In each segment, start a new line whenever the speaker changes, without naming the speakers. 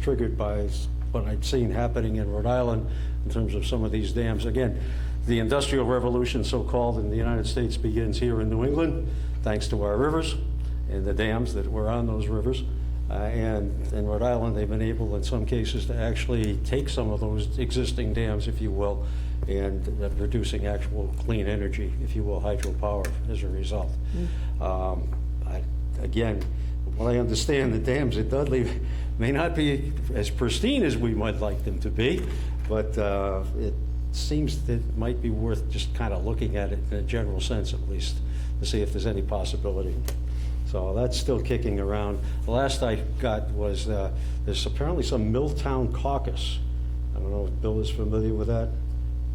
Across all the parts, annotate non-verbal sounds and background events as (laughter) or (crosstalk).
triggered by s- what I've seen happening in Rhode Island in terms of some of these dams. Again, the Industrial Revolution, so-called, in the United States begins here in New England, thanks to our rivers and the dams that were on those rivers. Uh, And in Rhode Island, they've been able, in some cases, to actually take some of those existing dams, if you will, and uh, producing actual clean energy, if you will, hydropower as a result. Um, I- Again, well, I understand the dams at Dudley (laughs) may not be as pristine as we might like them to be, but uh, it seems that it might be worth just kind of looking at it in a general sense at least, to see if there's any possibility. So that's still kicking around. The last I got was, uh, there's apparently some Milltown caucus. I don't know if Bill is familiar with that?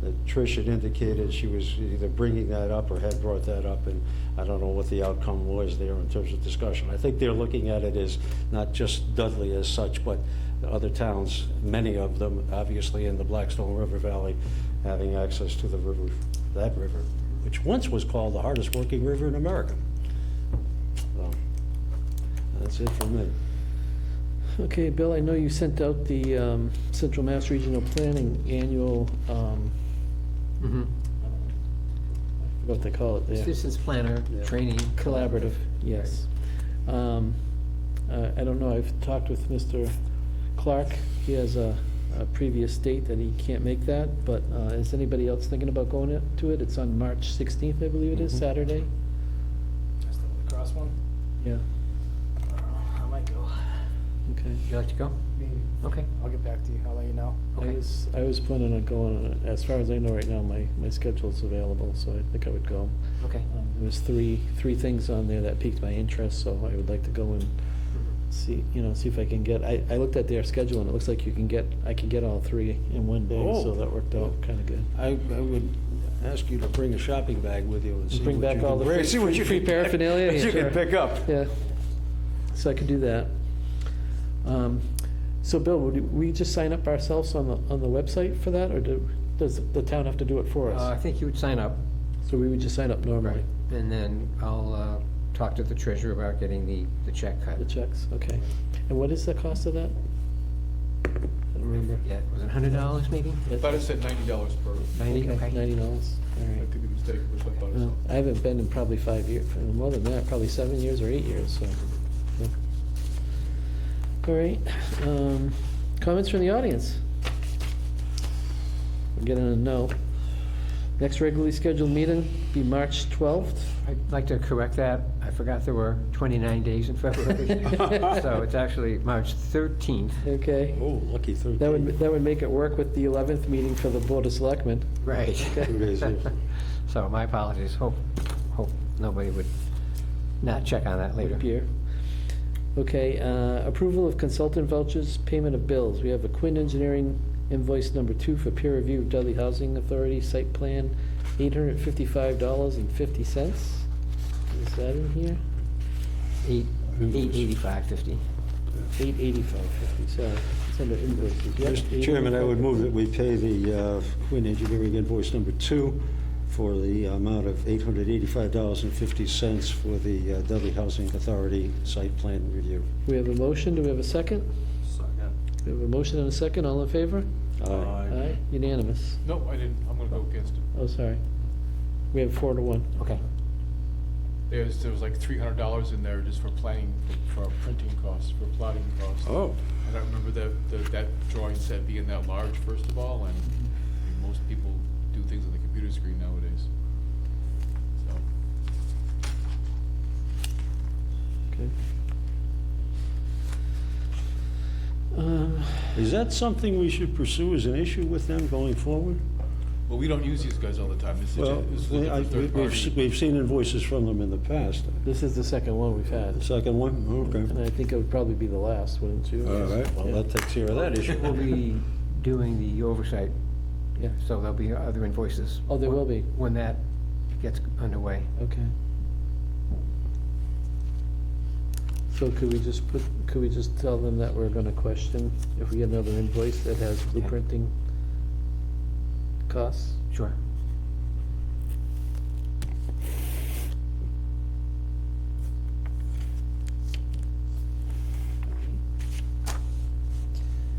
that Trish had indicated she was either bringing that up or had brought that up, and I don't know what the outcome was there in terms of discussion. I think they're looking at it as not just Dudley as such, but the other towns, many of them, obviously in the Blackstone River Valley, having access to the river, that river, which once was called the hardest-working river in America. So, That's it for me.
Okay, Bill, I know you sent out the um, Central Mass Regional Planning Annual, um, I forgot what they call it there,
Mm-hmm. Citizens planner,
Yeah.
training.
collaborative, yes. Um, uh, I don't know, I've talked with Mr. Clark, he has a a previous date that he can't make that, but uh, is anybody else thinking about going it- to it? It's on March 16th, I believe it is,
Mhm.
Saturday?
That's the lacrosse one.
Yeah,
I don't know. I might go.
okay.
Would you like to go?
Maybe.
Okay,
I'll get back to you. I'll let you know.
I
okay.
was, I was planning on going, on it. as far as I know right now, my, my schedule's available, so I think I would go.
Okay.
Um, There was three, three things on there that piqued my interest, so I would like to go and see, you know, see if I can get, I, I looked at their schedule and it looks like you can get, I can get all three in one day, so
Oh.
that worked out kinda good.
I, I would ask you to bring a shopping bag with you and see what
Bring
you
back
can
all the
bring-
free-
see what
free-
you
free
can-
paraphernalia, (laughs)
that (laughs) You
sure.
can pick up.
Yeah, so I could do that. Um, So Bill, would we just sign up ourselves on the, on the website for that, or do, does the town have to do it for
Uh, I
us?
think you would sign up.
So we would just sign up normally,
And then I'll uh, talk to the treasurer about getting the, the check cut.
the checks, okay. And what is the cost of that? I don't remember.
Yeah, was it hundred dollars maybe?
That's-
Thought it said ninety dollars per, I
Ninety,
Okay,
okay.
Ninety dollars, all right.
could be mistaken, but I thought it
Well, I
said.
haven't been in probably five years, more than that, probably seven years or eight years, so. yeah. All right, um, comments from the audience? We're getting a no. Next regularly scheduled meeting be March twelfth.
I'd like to correct that. I forgot there were twenty-nine days in (laughs) February. So it's actually March thirteenth.
Okay,
Oh, lucky thirteen.
that would, that would make it work with the eleventh meeting for the Board of Selectmen.
(laughs) Right.
Two days, yeah.
So my apologies. Hope, hope nobody would not check on that later.
Would appear. Okay, uh, approval of consultant vouchers, payment of bills. We have a Quinn Engineering invoice number two for peer review of Dudley Housing Authority site plan, eight hundred fifty-five dollars and fifty cents. Is that in here?
Eight, eight eighty-five fifty.
Eight eighty-five fifty, sorry, it's under invoices. Yep,
Mr. Chairman, I would
$885.
move that we pay the uh, Quinn Engineering invoice number two for the amount of $885.50 for the uh, Dudley Housing Authority site plan review.
We have a motion, do we have a second? We have a motion and a second, all in favor?
Aye.
Aye, unanimous.
No, I didn't, I'm gonna go against it.
Oh, sorry. We have four to one.
Okay.
There's, there was like three hundred dollars in there just for planning, for printing costs, for plotting costs. And I remember that, that, that drawing set being that large, first of all, and I mean, most people do things on the computer screen nowadays. So,
Okay. Um,
Is that something we should pursue as an issue with them going forward?
well, we don't use these guys all the time, this is,
Well,
this is looking
I-
for third
we've
party.
s- We've seen invoices from them in the past.
This is the second one we've had,
The second one?
and
Okay.
I think it would probably be the last, wouldn't you?
All right, well, that takes care of that issue.
We'll be doing the oversight,
Yeah.
so there'll be other invoices.
Oh, there will be.
When that gets underway.
Okay. So could we just put, could we just tell them that we're gonna question if we get another invoice that has blueprinting costs?
Sure.